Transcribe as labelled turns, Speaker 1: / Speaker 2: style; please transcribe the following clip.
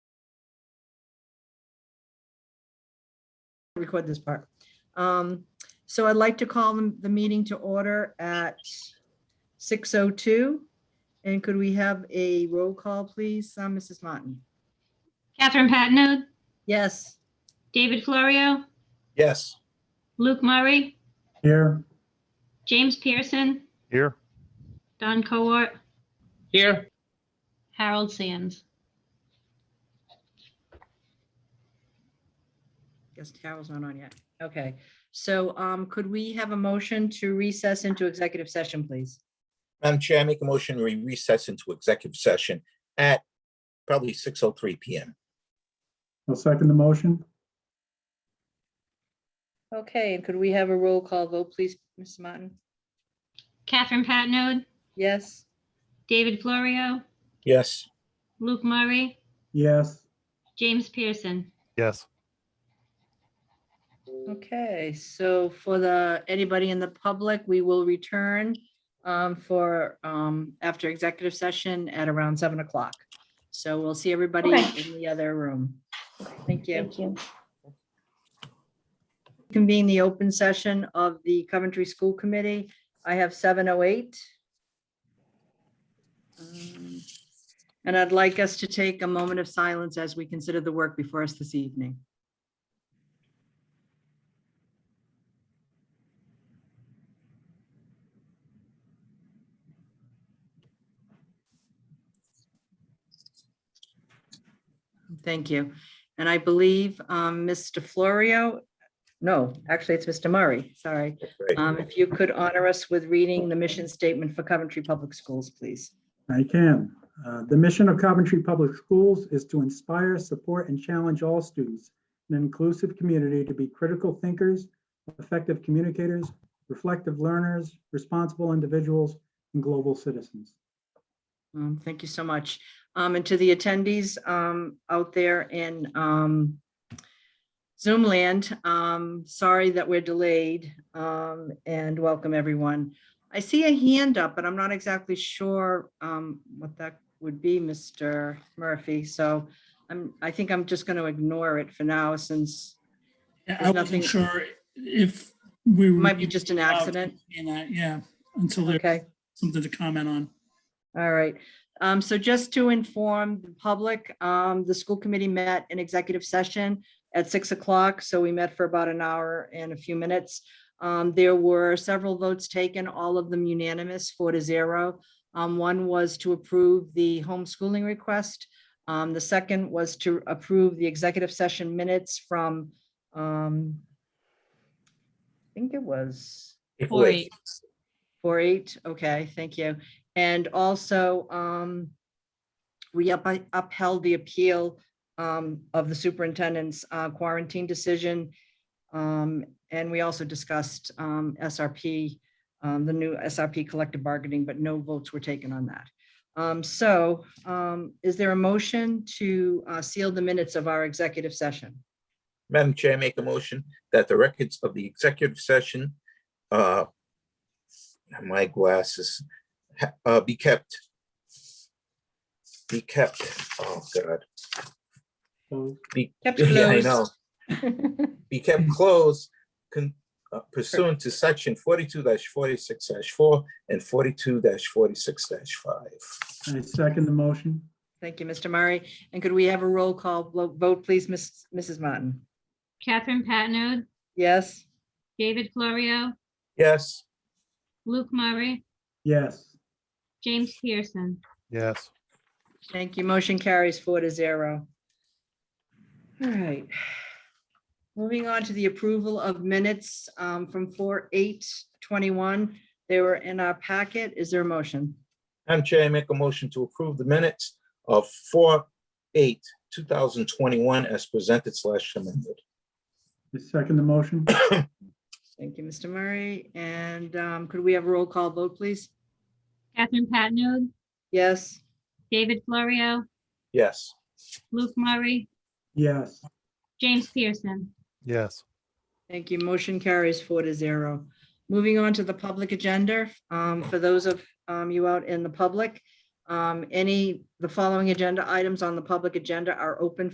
Speaker 1: record this part. Um, So I'd like to call the- the meeting to order at 6:02. And could we have a roll call, please? Uh, Mrs. Martin?
Speaker 2: Catherine Patino,
Speaker 1: Yes.
Speaker 2: David Florio,
Speaker 3: Yes.
Speaker 2: Luke Murray,
Speaker 3: Here.
Speaker 2: James Pearson,
Speaker 4: Here.
Speaker 2: Don Cowart,
Speaker 4: Here.
Speaker 2: Harold Sands.
Speaker 1: Guess Carol's not on yet. Okay, so um, could we have a motion to recess into executive session, please?
Speaker 3: Madam Chair, I make a motion to recess into executive session at probably six oh three PM.
Speaker 5: I'll second the motion.
Speaker 1: Okay, and could we have a roll call vote, please, Mrs. Martin?
Speaker 2: Catherine Patino,
Speaker 1: Yes?
Speaker 2: David Florio,
Speaker 3: Yes.
Speaker 2: Luke Murray,
Speaker 5: Yes,
Speaker 2: James Pearson.
Speaker 4: Yes.
Speaker 1: Okay, so for the, anybody in the public, we will return um, for, um, after executive session at around seven o'clock. So we'll see everybody
Speaker 2: Okay.
Speaker 1: in the other room. Thank you.
Speaker 2: you.
Speaker 1: Convene the open session of the Coventry School Committee. I have seven oh eight. Um, And I'd like us to take a moment of silence as we consider the work before us this evening. Thank you. And I believe um, Mr. Florio, no, actually, it's Mr. Murray, sorry.
Speaker 3: Right.
Speaker 1: Um, If you could honor us with reading the mission statement for Coventry Public Schools, please.
Speaker 5: I can. Uh, The mission of Coventry Public Schools is to inspire, support, and challenge all students in an inclusive community to be critical thinkers, effective communicators, reflective learners, responsible individuals, and global citizens.
Speaker 1: Um, Thank you so much. Um, And to the attendees um, out there in um, Zoom land, um, sorry that we're delayed um, and welcome everyone. I see a hand up, but I'm not exactly sure um, what that would be, Mr. Murphy. So I'm, I think I'm just going to ignore it for now since
Speaker 6: Yeah, I
Speaker 1: There's nothing-
Speaker 6: wasn't sure if we.
Speaker 1: it
Speaker 6: were
Speaker 1: might be just an accident.
Speaker 6: in that, Yeah, until there's
Speaker 1: Okay.
Speaker 6: something to comment on.
Speaker 1: All right. Um, so just to inform the public, um, the school committee met in executive session at six o'clock. So we met for about an hour and a few minutes. Um, there were several votes taken, all of them unanimous, four to zero. Um, one was to approve the homeschooling request. Um, the second was to approve the executive session minutes from, um, I think it was
Speaker 2: Four eight.
Speaker 1: Four eight, okay, thank you. And also, um, we up- upheld the appeal, um, of the superintendent's uh, quarantine decision. Um, and we also discussed, um, SRP, um, the new SRP collective bargaining, but no votes were taken on that. Um, so, um, is there a motion to, uh, seal the minutes of our executive session?
Speaker 3: Madam Chair, I make a motion that the records of the executive session, uh, my glasses, ha- uh, be kept. Be kept, oh God.
Speaker 5: So
Speaker 3: Be-
Speaker 1: Kept
Speaker 3: Yeah, I
Speaker 1: closed.
Speaker 3: know. be kept closed con- uh, pursuant to section forty-two forty-six four and forty-two forty-six five.
Speaker 5: I second the motion.
Speaker 1: Thank you, Mr. Murray. And could we have a roll call vo- vote, please, Miss, Mrs. Martin?
Speaker 2: Catherine Patino,
Speaker 1: Yes?
Speaker 2: David Florio,
Speaker 3: Yes,
Speaker 2: Luke Murray,
Speaker 5: Yes,
Speaker 2: James Pearson.
Speaker 4: Yes.
Speaker 1: Thank you. Motion carries four to zero. All right. Moving on to the approval of minutes um, from four, eight, twenty-one. They were in our packet. Is there a motion?
Speaker 3: Madam Chair, I make a motion to approve the minutes of four, eight, two thousand twenty-one as presented slash amended.
Speaker 5: I second the motion.
Speaker 1: Thank you, Mr. Murray. And um, could we have a roll call vote, please?
Speaker 2: Catherine Patino,
Speaker 1: Yes?
Speaker 2: David Florio,
Speaker 3: Yes,
Speaker 2: Luke Murray,
Speaker 5: Yes,
Speaker 2: James Pearson.
Speaker 4: Yes.
Speaker 1: Thank you. Motion carries four to zero. Moving on to the public agenda, um, for those of um, you out in the public, um, any, the following agenda items on the public agenda are open